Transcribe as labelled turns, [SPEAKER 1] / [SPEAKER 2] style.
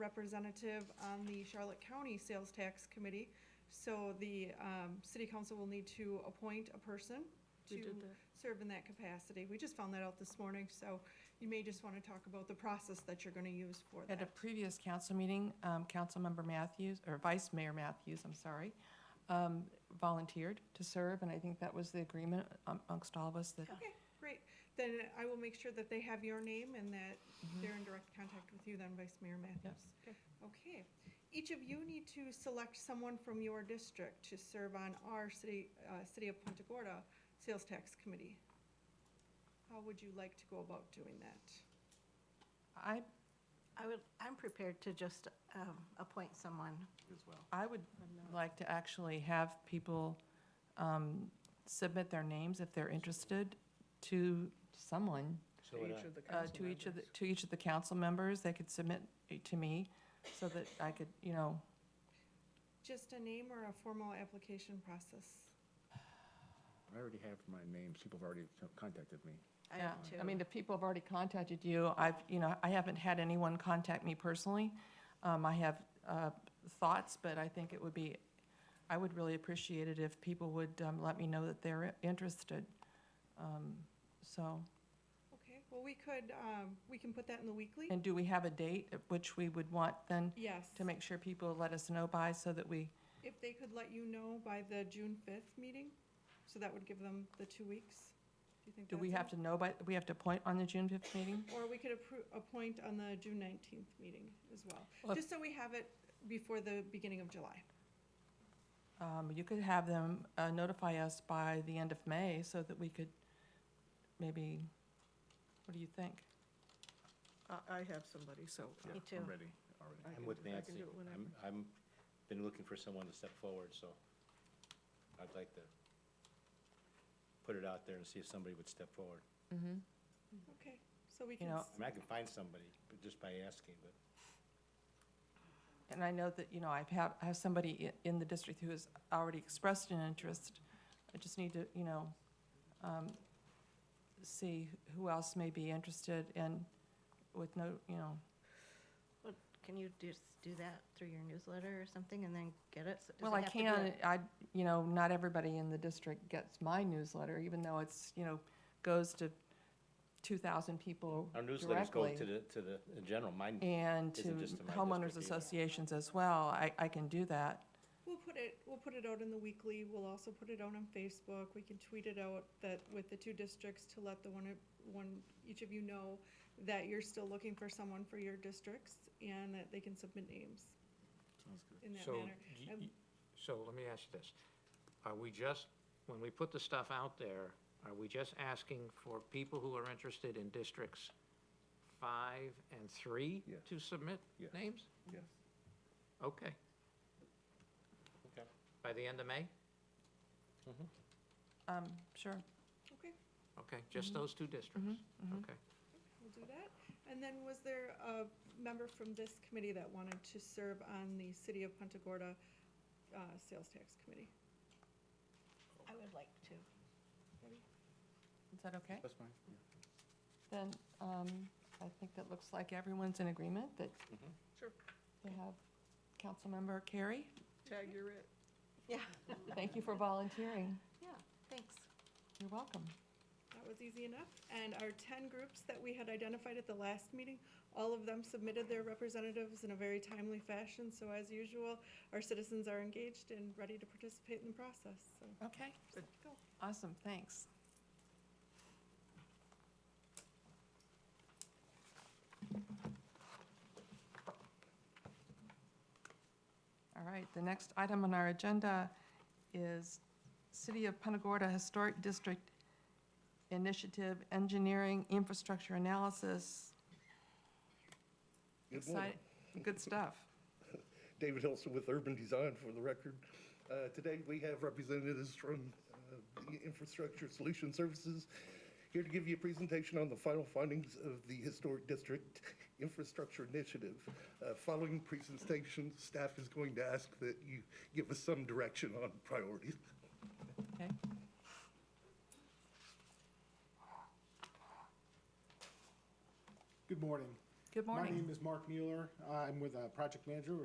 [SPEAKER 1] representative on the Charlotte County Sales Tax Committee. So the um, city council will need to appoint a person to
[SPEAKER 2] We did that.
[SPEAKER 1] serve in that capacity. We just found that out this morning, so you may just want to talk about the process that you're going to use for
[SPEAKER 2] At a
[SPEAKER 1] that.
[SPEAKER 2] previous council meeting, um, Councilmember Matthews, or Vice Mayor Matthews, I'm sorry, um, volunteered to serve, and I think that was the agreement amongst all of us that,
[SPEAKER 1] Okay, great. Then I will make sure that they have your name and that
[SPEAKER 2] Mm-hmm.
[SPEAKER 1] they're in direct contact with you then, Vice Mayor Matthews.
[SPEAKER 2] Okay.
[SPEAKER 1] Okay. Each of you need to select someone from your district to serve on our city, uh, City of Punta Gorda Sales Tax Committee. How would you like to go about doing that?
[SPEAKER 2] I,
[SPEAKER 3] I would, I'm prepared to just um, appoint someone.
[SPEAKER 4] as well.
[SPEAKER 2] I would like to actually have people um, submit their names if they're interested to someone,
[SPEAKER 5] So would I.
[SPEAKER 2] uh, to each of, the to each of the council members. They could submit it to me so that I could, you know,
[SPEAKER 1] Just a name or a formal application process?
[SPEAKER 4] I already have my names, people have already contacted me.
[SPEAKER 3] I
[SPEAKER 2] Yeah,
[SPEAKER 3] have
[SPEAKER 2] I mean,
[SPEAKER 3] two.
[SPEAKER 2] if people have already contacted you, I've, you know, I haven't had anyone contact me personally. Um, I have, uh, thoughts, but I think it would be, I would really appreciate it if people would, um, let me know that they're interested. Um, so,
[SPEAKER 1] Okay, well, we could, um, we can put that in the weekly?
[SPEAKER 2] and do we have a date at which we would want then
[SPEAKER 1] Yes.
[SPEAKER 2] to make sure people let us know by so that we,
[SPEAKER 1] If they could let you know by the June fifth meeting, so that would give them the two weeks. Do you think
[SPEAKER 2] do we
[SPEAKER 1] that's
[SPEAKER 2] have to know by, we have to appoint on the June fifth meeting?
[SPEAKER 1] Or we could appro- appoint on the June nineteenth meeting as well,
[SPEAKER 2] Well, if-
[SPEAKER 1] just so we have it before the beginning of July.
[SPEAKER 2] Um, you could have them uh, notify us by the end of May so that we could maybe, what do you think?
[SPEAKER 6] I, I have somebody, so.
[SPEAKER 3] Me too.
[SPEAKER 4] I'm ready, already.
[SPEAKER 6] I
[SPEAKER 5] I'm
[SPEAKER 6] can
[SPEAKER 5] with
[SPEAKER 6] do- I can
[SPEAKER 5] Nancy.
[SPEAKER 6] do it whenever.
[SPEAKER 5] I'm, I'm, been looking for someone to step forward, so I'd like to put it out there and see if somebody would step forward.
[SPEAKER 1] Okay, so we
[SPEAKER 2] You
[SPEAKER 1] can,
[SPEAKER 2] know-
[SPEAKER 1] s-
[SPEAKER 5] I mean, I can find somebody, but just by asking, but
[SPEAKER 2] And I know that, you know, I've had, I have somebody i- in the district who has already expressed an interest. I just need to, you know, um, see who else may be interested and with no, you know,
[SPEAKER 3] Well, Can you just do that through your newsletter or something and then get it? So does
[SPEAKER 2] well,
[SPEAKER 3] it
[SPEAKER 2] I
[SPEAKER 3] have to be
[SPEAKER 2] can,
[SPEAKER 3] a-
[SPEAKER 2] I, you know, not everybody in the district gets my newsletter, even though it's, you know, goes to two thousand people
[SPEAKER 5] our
[SPEAKER 2] directly.
[SPEAKER 5] newsletters go to the, to the, in general, mine,
[SPEAKER 2] and to
[SPEAKER 5] Isn't just in my
[SPEAKER 2] homeowners
[SPEAKER 5] district either.
[SPEAKER 2] associations as well. I, I can do that.
[SPEAKER 1] we'll put it, we'll put it out in the weekly, we'll also put it out on Facebook, we can tweet it out that, with the two districts to let the one, of- one, each of you know that you're still looking for someone for your districts and that they can submit names
[SPEAKER 4] Sounds good.
[SPEAKER 1] in that
[SPEAKER 7] So,
[SPEAKER 1] manner.
[SPEAKER 7] y-
[SPEAKER 1] Um,
[SPEAKER 7] y- so let me ask you this. Are we just, when we put the stuff out there, are we just asking for people who are interested in districts five and three
[SPEAKER 4] Yeah.
[SPEAKER 7] to submit
[SPEAKER 4] Yeah.
[SPEAKER 7] names?
[SPEAKER 4] Yes.
[SPEAKER 7] Okay.
[SPEAKER 5] Okay.
[SPEAKER 7] By the end of May?
[SPEAKER 2] Um, sure.
[SPEAKER 1] Okay.
[SPEAKER 7] Okay,
[SPEAKER 1] Mm-hmm.
[SPEAKER 7] just those two districts? Okay.
[SPEAKER 1] We'll do that. And then was there a member from this committee that wanted to serve on the City of Punta Gorda uh, Sales Tax Committee?
[SPEAKER 3] I would like to.
[SPEAKER 2] Is that okay?
[SPEAKER 4] That's fine. yeah.
[SPEAKER 2] Then, um, I think that looks like everyone's in agreement that
[SPEAKER 6] Sure,
[SPEAKER 2] they have Councilmember Carey.
[SPEAKER 6] tag you're it.
[SPEAKER 3] Yeah,
[SPEAKER 2] Thank you for volunteering.
[SPEAKER 3] yeah, thanks.
[SPEAKER 2] You're welcome.
[SPEAKER 1] That was easy enough. And our 10 groups that we had identified at the last meeting, all of them submitted their representatives in a very timely fashion. So as usual, our citizens are engaged and ready to participate in the process, so.
[SPEAKER 2] Okay.
[SPEAKER 1] Cool.
[SPEAKER 2] Awesome, thanks. All right, the next item on our agenda is City of Punta Gorda Historic District Initiative Engineering Infrastructure Analysis.
[SPEAKER 8] Good morning.
[SPEAKER 2] Excite- Good stuff.
[SPEAKER 8] David Hilson with Urban Design for the record. Uh, Today, we have representatives from uh, the Infrastructure Solution Services here to give you a presentation on the final findings of the Historic District Infrastructure Initiative. Uh, Following presentation, staff is going to ask that you give us some direction on priorities.
[SPEAKER 2] Okay.
[SPEAKER 9] Good morning.
[SPEAKER 10] Good
[SPEAKER 4] My
[SPEAKER 10] morning.
[SPEAKER 4] name is Mark Mueller. I'm with uh, Project Manager